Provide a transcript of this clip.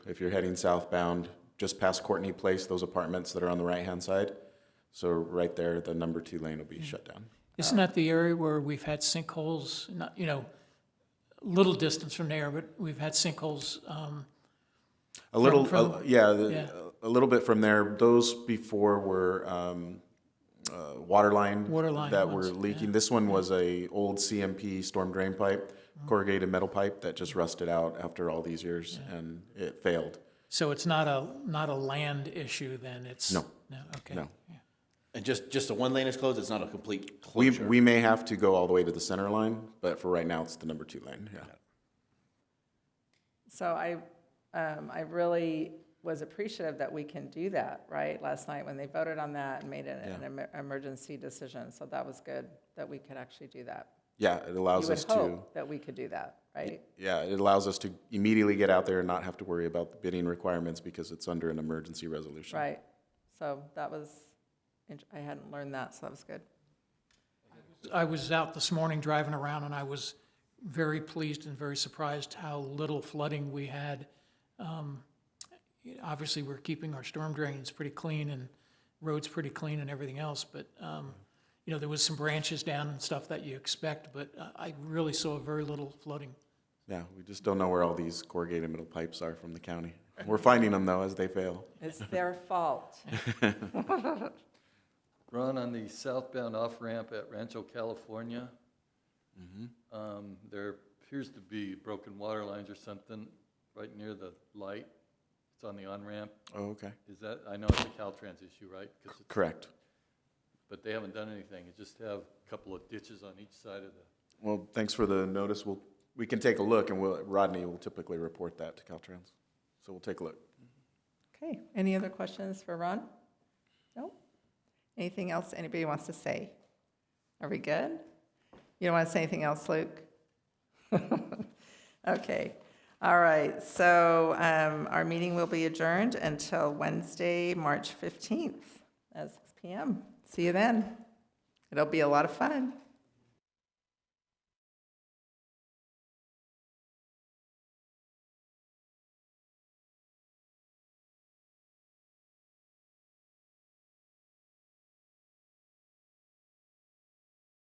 If you're heading southbound, just past Courtney Place, those apartments that are on the right-hand side. So right there, the number two lane will be shut down. Isn't that the area where we've had sinkholes, not, you know, little distance from there, but we've had sinkholes, um, A little, from- uh, yeah, the- yeah. a little bit from there. Those before were um, uh, water line Water line that were ones, leaking. This one was a old CMP storm drain pipe, Uh-huh. corrugated metal pipe that just rusted out after all these years and it failed. so it's not a, not a land issue then, it's? No. No, okay. No. And just, just the one lane is closed, it's not a complete We, closure? we may have to go all the way to the center line, but for right now, it's the number two lane, yeah. So I, um, I really was appreciative that we can do that, right? Last night when they voted on that and made it an emer- emergency decision, so that was good that we could actually do that. Yeah, it You allows would us to, hope that we could do that, right? yeah, it allows us to immediately get out there and not have to worry about the bidding requirements because it's under an emergency resolution. Right. So that was, int- I hadn't learned that, so that was good. I was out this morning driving around and I was very pleased and very surprised how little flooding we had. Um, you know, Obviously, we're keeping our storm drains pretty clean and roads pretty clean and everything else, but, um, you know, there was some branches down and stuff that you expect, but uh, I really saw very little flooding. Yeah, we just don't know where all these corrugated metal pipes are from the county. We're finding them though as they fail. It's their fault. Ron, on the southbound off-ramp at Rancho California, um, there appears to be broken water lines or something right near the light. It's on the on-ramp. Oh, okay. Is that, I know it's a Caltrans issue, right? 'Cause it's- Correct. But they haven't done anything. You just have a couple of ditches on each side of the, Well, thanks for the notice. We'll, we can take a look and we'll, Rodney will typically report that to Caltrans. So we'll take a look. Okay, any other questions for Ron? No? Anything else anybody wants to say? Are we good? You don't want to say anything else, Luke? Okay, all right, so um, our meeting will be adjourned until Wednesday, March 15th at 6 PM. See you then. It'll be a lot of fun.